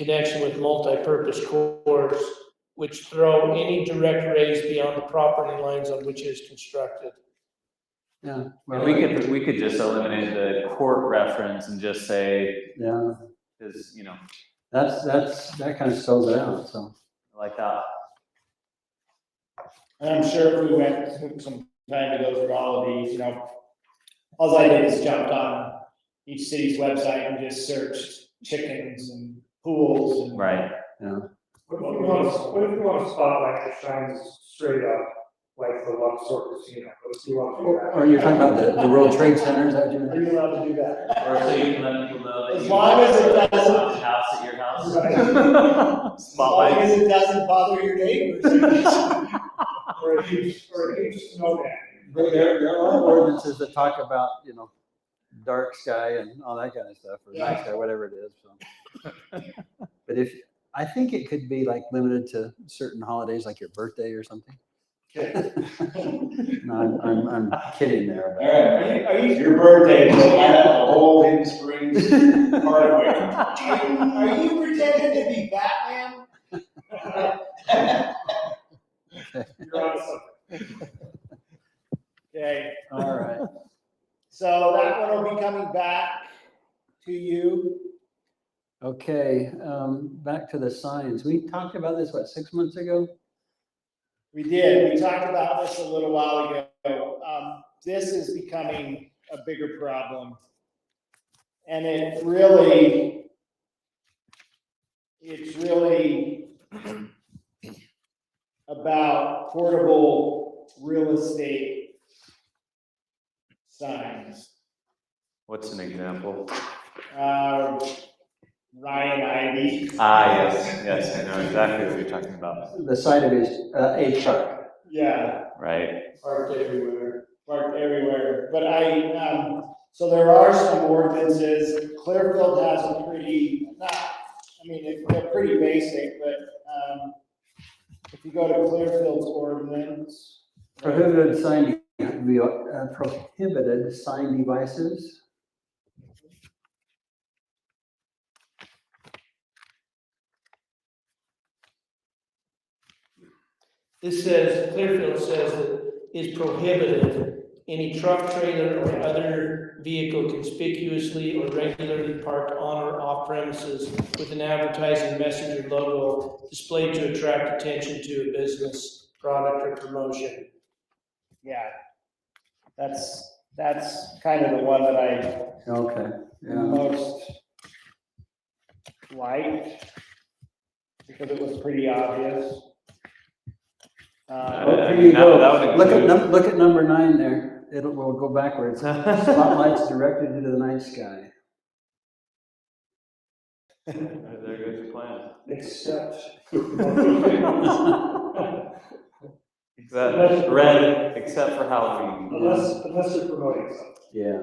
connection with multipurpose cores, which throw any direct rays beyond the property lines on which it is constructed. Yeah, Well, we could, we could just eliminate the court reference and just say, yeah, is, you know, that's, that's, that kind of spells it out, so. like that. And I'm sure if we went took some time to go through all of these, you know, all I did is jumped on each city's website and just searched chickens and pools and. Right, What if you want, a- what if you want a spotlight that shines straight up, like the Luxor Casino, what if you want to do Or you're talking about the, the World Trade Center, is that what you're? Are you allowed to do that? or so you can let people know that As you. long as it doesn't- House at your house. As long Spotlight. as it doesn't bother your neighbors. that? Or if you, or if you just know that, There, there are ordinances that talk about, you know, dark sky and all that kind of stuff, or night sky, whatever it is, so. But if, I think it could be like limited to certain holidays, like your birthday or something. No, I'm, I'm, I'm kidding there. All right, are you, are you, your birthday, so I have a whole in Springs hardware. Are you pretending to be Batman? you're on something. Okay, All right. so that one will be coming back to you. Okay, um, back to the signs. We talked about this, what, six months ago? We did, we talked about this a little while ago. Um, this is becoming a bigger problem. And it really, it's really about portable real estate signs. What's an example? Uh, Ryan Ivy, Ah, yes, yes, I know exactly what you're talking about, The side of his, uh, a truck. yeah. right? Parked everywhere. Parked everywhere, but I, um, so there are some ordinances, Clearfield has a pretty, not, I mean, it- they're pretty basic, but, um, if you go to Clearfield's ordinance. Prohibited sign, de- uh, prohibited sign devices. This says, Clearfield says that is prohibited any truck, trailer, or other vehicle conspicuously or regularly parked on or off premises with an advertising message or logo displayed to attract attention to a business, product, or promotion. Yeah, that's, that's kind of the one that I Okay, Mm. yeah, most liked, because it was pretty obvious. Uh, Well, here you go. That look would at, include. num- look at number nine there, it'll, we'll go backwards. Spotlights directed into the night sky. There goes your plan. Except. Except, red, except for Halloween. Unless, unless you're promoting something. Yes.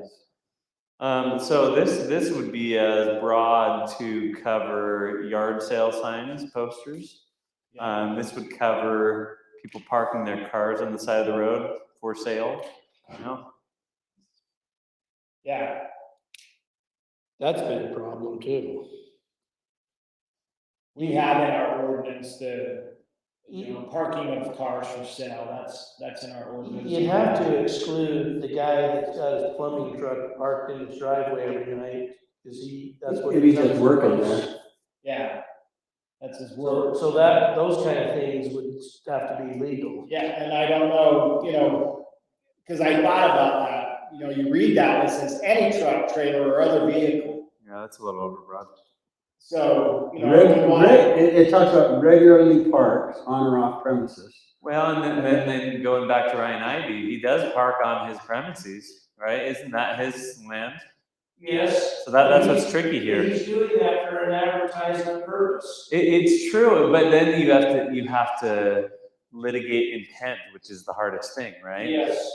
Um, so this, this would be as broad to cover yard sale signs, posters. Um, this would cover people parking their cars on the side of the road for sale, you know? yeah. That's been a problem too. We have in our ordinance the, you know, parking of cars for sale, that's, that's in our ordinance. You'd have to exclude the guy that's got his plumbing truck parked in his driveway every night, because he, that's what. Maybe he just does. working there. Yeah, that's his So, word. so that, those kind of things would have to be legal. Yeah, and I don't know, you know, because I thought about that, you know, you read that, and it says any truck, trailer, or other vehicle. Yeah, that's a little overbroad. So, you know, if Reg- you want reg- it, it talks about regularly parks on or off premises. Well, and then, then, then going back to Ryan Ivy, he does park on his premises, right? Isn't that his land? Yes. So that, that's what's tricky here. He's doing that for an advertising purpose. It, it's true, but then you have to, you have to litigate intent, which is the hardest thing, right? Yes.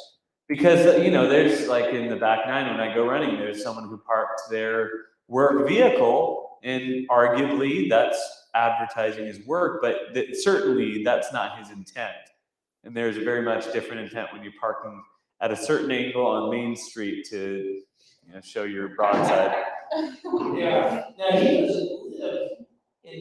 Because, uh, you know, there's like in the back nine, when I go running, there's someone who parked their work vehicle and arguably that's advertising his work, but that certainly that's not his intent. And there's a very much different intent when you're parking at a certain angle on Main Street to, you know, show your broadside. Yeah, now he was, uh,